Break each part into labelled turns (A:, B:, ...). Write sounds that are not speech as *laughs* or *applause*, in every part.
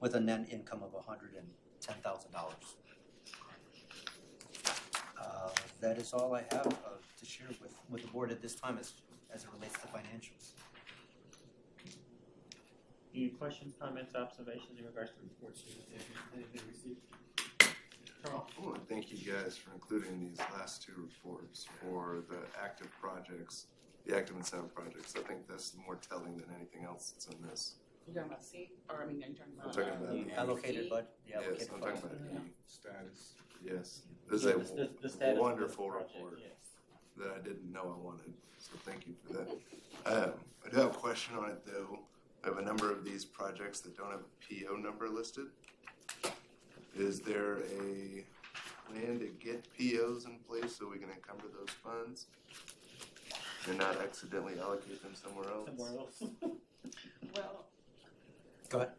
A: with a net income of hundred and ten thousand dollars. Uh, that is all I have uh, to share with, with the board at this time as, as it relates to financials.
B: Any questions, comments, observations in regards to reports you have anything received? Carl?
C: I want to thank you guys for including these last two reports for the active projects, the active and sound projects. I think that's more telling than anything else that's in this.
D: You're talking about C, or I mean, you're talking
C: I'm
D: about.
C: talking
D: uh,
C: about the
A: Allocated
D: E?
A: bud, the
C: Yes,
A: allocated
C: I'm
A: funds.
C: talking about the,
E: status.
C: yes. This
B: The-
C: is
B: the- the status of
C: a
B: this
C: wonderful
B: project,
C: report
B: yes.
C: that I didn't know I wanted, so thank you for that. Um, I do have a question on it though. I have a number of these projects that don't have a PO number listed. Is there a plan to get POs in place so we can encumber those funds? And not accidentally allocate them somewhere else?
B: Somewhere else.
D: Well.
A: Go ahead.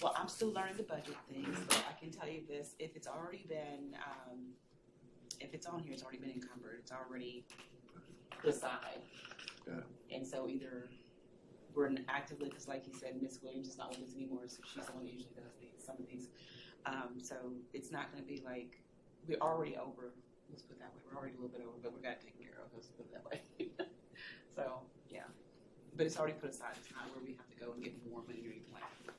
D: Well, I'm still learning the budget thing, so I can tell you this, if it's already been, um, if it's on here, it's already been encumbered, it's already decided.
C: Got
D: And so either we're in actively, because like you said, Miss Williams is not with us anymore, so she's the one that usually does these, some of these. Um, so it's not gonna be like, we're already over, let's put it that way, we're already a little bit over, but we got to take care of, let's put it that way. *laughs* So, yeah, but it's already put aside, it's not where we have to go and get more money or anything like that.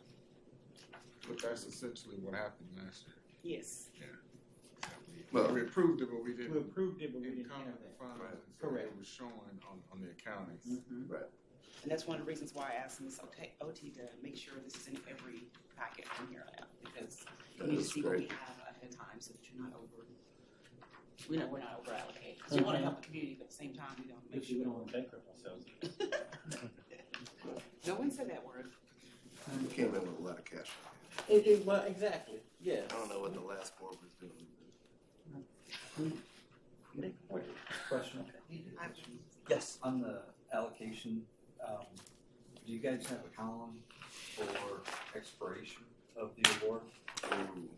E: But that's essentially what happened last year.
D: Yes.
E: We-
C: Well-
E: We approved it, but we didn't
B: *laughs* We approved it, but we didn't
E: encumber
B: have
E: the
B: that.
E: funds.
C: Right.
E: and so
B: Correct. Mm-hmm.
E: It was showing on, on the accounting.
C: Mm-hmm.
D: And that's one of the reasons why I asked Ms. OT OT to make sure this is in every packet from here on out, because you
C: That
D: need to
C: is
D: see what we
C: great.
D: have ahead of time so that you're not over, we know we're not over allocated. Because you want
C: Mm-hmm.
D: to help the community, but at the same time, we don't make
B: If you
D: sure.
B: don't want to bankrupt ourselves.
D: No one said that word.
C: We came in with a lot of cash.
B: It, it, well, exactly, yeah.
C: I don't know what the last board was doing.
F: Question,
A: Yes,
F: on the allocation, um, do you guys have a column for expiration of the award?
C: but- Ooh,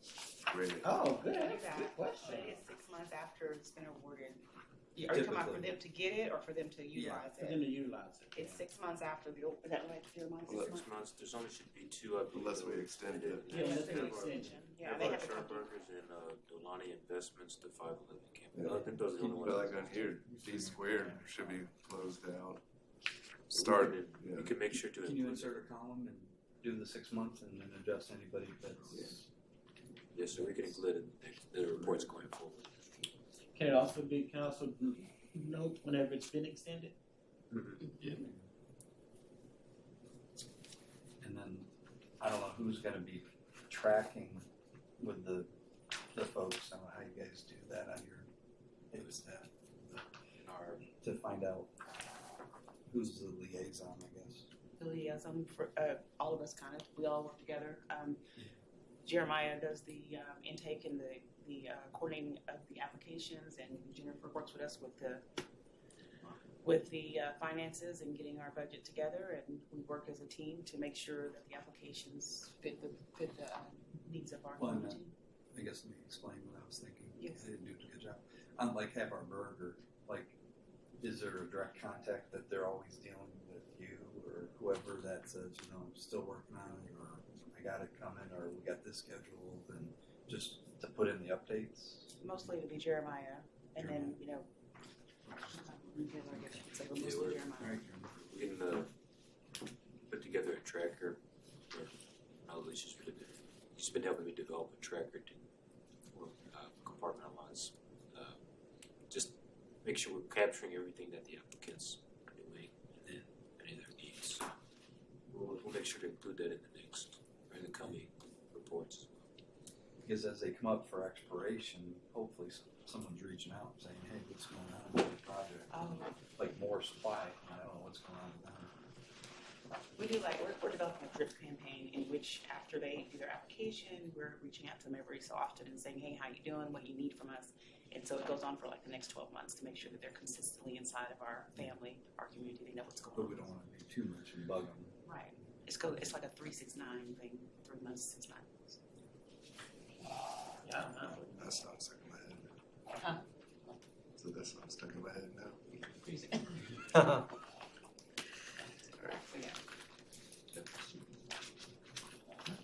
C: great.
B: Oh, good,
D: that's a good
B: question.
D: six months after it's been awarded. Are you talking about for them to get it or for them to utilize
B: For them
D: it?
B: to utilize it.
D: It's six months after the, is that right, Jeremiah? Six
C: Well,
D: months?
G: six months, there's only should be two, I believe.
C: Unless we extend it.
B: Yeah, that's an
D: Their
B: extension.
D: Yeah, they have a couple.
G: Sharburgers and, uh, Delani Investments, the five eleven
C: Yeah.
G: campus, I think those are the only ones.
C: But like uh, on here, D squared should be closed out. Start, yeah.
G: You can make sure to
F: Can you
G: include,
F: insert a column and do the six months and then adjust anybody that's?
G: yes, so we can include it, in the the reports going forward.
B: Can it also be council note whenever it's been extended?
F: And then, I don't know who's gonna be tracking with the, the folks, I don't know how you guys do that on your, it's that,
G: In our,
F: to find out who's the liaison, I guess.
D: the liaison for uh, all of us kind of we all work together um, jeremiah does the um, intake and the, the uh, coordinating of the applications and jennifer works with us with the with the uh, finances and getting our budget together and we work as a team to make sure that the applications fit the fit the um, needs of our
F: Why not?
D: community
F: I guess let me explain what I was thinking.
D: Yes.
F: I didn't do a good job. Um, like have our burger, like, is there a direct contact that they're always dealing with you or whoever that says, you know, I'm still working on it or I got it coming or we got this scheduled and just to put in the updates?
D: mostly it'll be jeremiah and then you know so
G: Yeah,
D: mostly
G: we're-
D: jeremiah
G: we can, uh, put together a tracker, or, no, Alicia's really been, she's been helping me develop a tracker to, uh, compartmentalize, uh, just make sure we're capturing everything that the applicants are doing, and any of their needs. We'll, we'll make sure to include that in the next, or in the coming reports.
F: Because as they come up for expiration, hopefully s- someone's reaching out and saying, hey, what's going on with the project?
D: Oh.
F: Like more supply, and I don't know what's going on with them.
D: We do like, we're, we're developing a drip campaign in which after they do their application, we're reaching out to them every so often and saying, hey, how you doing? What do you need from us? And so it goes on for like the next twelve months to make sure that they're consistently inside of our family, our community, they know what's going
F: But
D: on.
F: we don't want to do too much and bug them.
D: Right. It's go, it's like a three, six, nine thing, three months, six, nine months.
B: Yeah, I don't know.
C: That's not stuck in my head.
D: Huh?
C: So that's not stuck in my head now.
D: Three, six-
C: *laughs*
A: All